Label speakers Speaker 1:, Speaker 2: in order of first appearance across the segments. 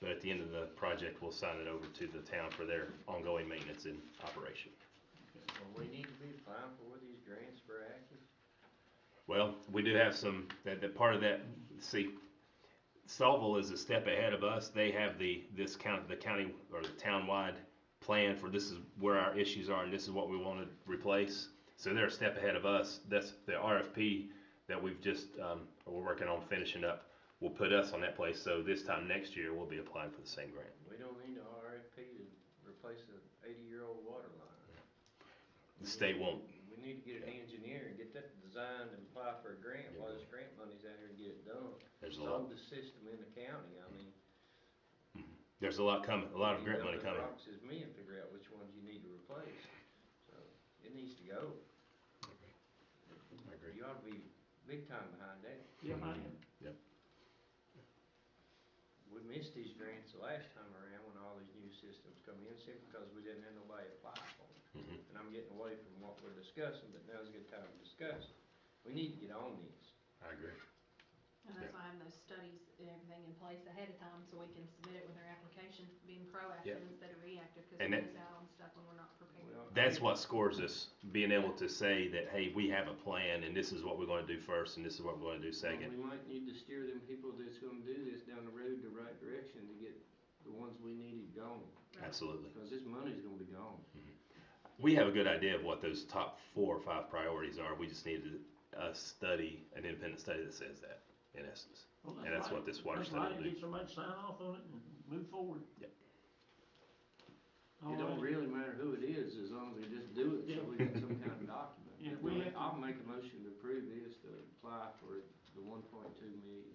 Speaker 1: the end of the project, we'll sign it over to the town for their ongoing maintenance and operation.
Speaker 2: Well, we need to be fine for these grants for active.
Speaker 1: Well, we do have some, that, that part of that, see, Saltville is a step ahead of us. They have the, this county, the county or the town-wide plan for this is where our issues are and this is what we want to replace. So they're a step ahead of us. That's the RFP that we've just, um, we're working on finishing up. Will put us on that place. So this time next year, we'll be applying for the same grant.
Speaker 2: We don't need an RFP to replace an eighty-year-old water line.
Speaker 1: The state won't.
Speaker 2: We need to get an engineer and get that designed and apply for a grant while this grant money's out here and get it done.
Speaker 1: There's a
Speaker 2: It's
Speaker 1: lot,
Speaker 2: on the system in the county, I mean.
Speaker 1: there's a lot coming, a lot of
Speaker 2: you
Speaker 1: grant
Speaker 2: go
Speaker 1: money
Speaker 2: to
Speaker 1: coming.
Speaker 2: Fox is me and figure out which ones you need to replace. So, it needs to go.
Speaker 1: I agree.
Speaker 2: You ought to be big time behind that.
Speaker 3: Yeah, I
Speaker 1: Mm-hmm.
Speaker 3: am.
Speaker 2: We missed these grants the last time around when all these new systems come in, simply because we didn't have nobody apply for them.
Speaker 1: Mhm.
Speaker 2: And I'm getting away from what we're discussing, but now's a good time to discuss. it. We need to get on these.
Speaker 1: I agree.
Speaker 4: And that's why I have those studies and everything in place ahead of time, so we can submit it with our application, being proactive instead of reactive, cause we
Speaker 1: And that-
Speaker 4: miss out on stuff when we're not prepared.
Speaker 2: Well,
Speaker 1: That's what scores us, being able to say that, hey, we have a plan and this is what we're gonna do first and this is what we're gonna do second.
Speaker 3: We might need to steer them people that's gonna do this down the road the right direction to get the ones we needed gone,
Speaker 1: Absolutely.
Speaker 3: because this money's gonna be gone.
Speaker 1: We have a good idea of what those top four or five priorities are. We just need a, a study, an independent study that says that, in essence. And that's what this water study will do.
Speaker 5: Get somebody to sign off on it and move forward.
Speaker 1: Yep.
Speaker 5: All
Speaker 6: Oh,
Speaker 3: It don't
Speaker 5: right.
Speaker 3: really matter who it is, as long as they just do it, so we got some kind of document.
Speaker 5: Yeah,
Speaker 3: But
Speaker 5: we
Speaker 3: we-
Speaker 5: have to-
Speaker 3: I'll make a motion to approve this, to apply for the one point two million.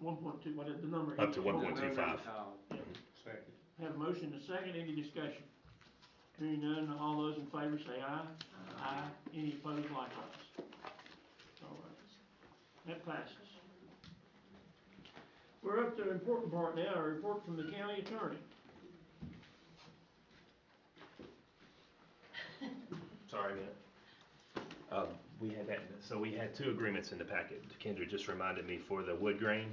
Speaker 5: One point two, what is the number?
Speaker 1: Up to
Speaker 5: Eight.
Speaker 1: 1.2.
Speaker 2: Second.
Speaker 5: Have a motion and a second, any discussion? Hearing none, all those in favor say aye.
Speaker 4: Um,
Speaker 5: Aye. Any opposed likewise? All right. That passes. We're up to the important part now, a report from the county attorney.
Speaker 1: Sorry, man. Um, we had that, so we had two agreements in the packet. Kendra just reminded me for the wood grain,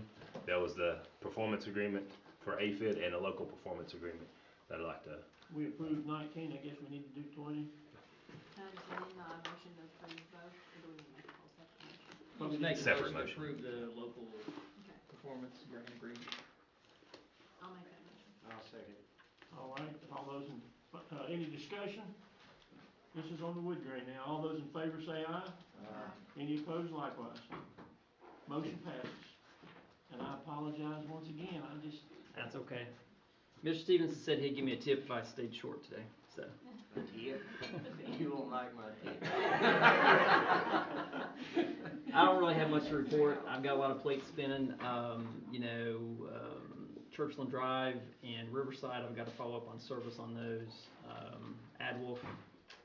Speaker 1: that was the performance agreement for AFID and a local performance agreement that I'd like to,
Speaker 5: We approved nineteen, I guess we need to do twenty.
Speaker 4: Um, so then I motion to approve both, or do we need to make a whole separate motion?
Speaker 6: Well, we make a
Speaker 1: Separate motion.
Speaker 6: motion to approve the local
Speaker 4: Okay,
Speaker 6: performance grant agreement.
Speaker 4: I'll make that motion.
Speaker 3: I'll second.
Speaker 5: All right, all those in, uh, any discussion? This is on the wood grain now, all those in favor say aye.
Speaker 3: Uh,
Speaker 5: Any opposed likewise? Motion passes. And I apologize once again, I just,
Speaker 6: That's okay. Mr. Stevenson said he'd give me a tip if I stayed short today, so.
Speaker 3: yeah, you won't like my tip.
Speaker 6: I don't really have much to report. I've got a lot of plates spinning, um, you know, um, Churchland Drive and Riverside, I've got to follow up on service on those. Um, Adwolf,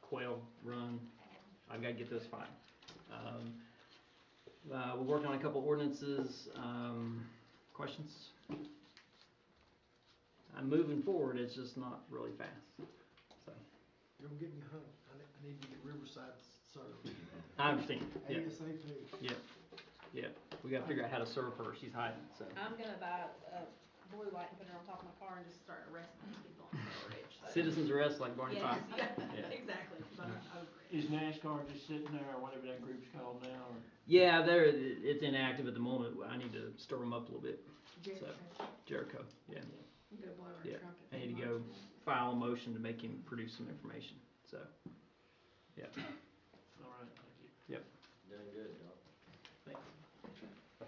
Speaker 6: Quail Run, I've got to get those filed. Um, uh, we're working on a couple ordinances, um, questions? I'm moving forward, it's just not really fast, so,
Speaker 7: You're getting me hung. I need, I need to get Riverside served
Speaker 6: I understand, yeah,
Speaker 7: ASAP.
Speaker 6: we gotta figure out how to serve her, she's hiding, so.
Speaker 4: I'm gonna buy a blue light and put it on top of my car and just start arresting people on Trail Ridge, so.
Speaker 6: Citizens arrest like Barney Fife.
Speaker 4: Yes, yeah,
Speaker 6: Yeah.
Speaker 4: exactly, but I'm over it.
Speaker 5: is NASCAR just sitting there, or whatever that group's called now, or?
Speaker 6: Yeah, they're, it's inactive at the moment. I need to stir them up a little bit.
Speaker 4: Jared,
Speaker 6: So- Jericho, yeah.
Speaker 4: I'm gonna blow
Speaker 6: Yeah,
Speaker 4: our trumpet.
Speaker 6: I need to
Speaker 4: tomorrow.
Speaker 6: go file a motion to make him produce some information, so.
Speaker 5: All right, thank you.
Speaker 2: Done good, dog.
Speaker 6: Thanks.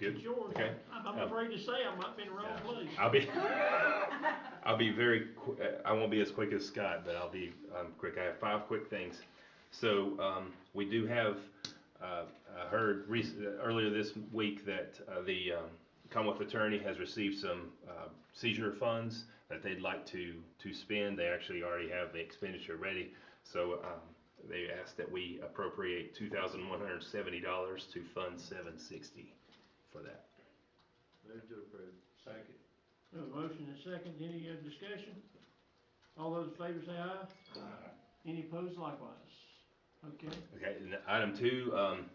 Speaker 1: good?
Speaker 5: George,
Speaker 1: Okay.
Speaker 5: I'm I'm afraid to say I might be in the wrong
Speaker 1: Yeah.
Speaker 5: place.
Speaker 1: I'll be, I'll be very, qu- uh, I won't be as quick as Scott, but I'll be um, quick. I have five quick things. So um, we do have, uh, I heard rec- uh, earlier this week that uh, the um, Commonwealth Attorney has received some uh, seizure funds that they'd like to to spend. They actually already have the expenditure ready. So um, they asked that we appropriate two thousand one hundred seventy dollars to fund seven sixty for that.
Speaker 2: Move to approve. Second.
Speaker 5: We have a motion and a second, any uh, discussion? All those in favor say aye. Any opposed likewise? Okay,
Speaker 1: Okay, and item two, um,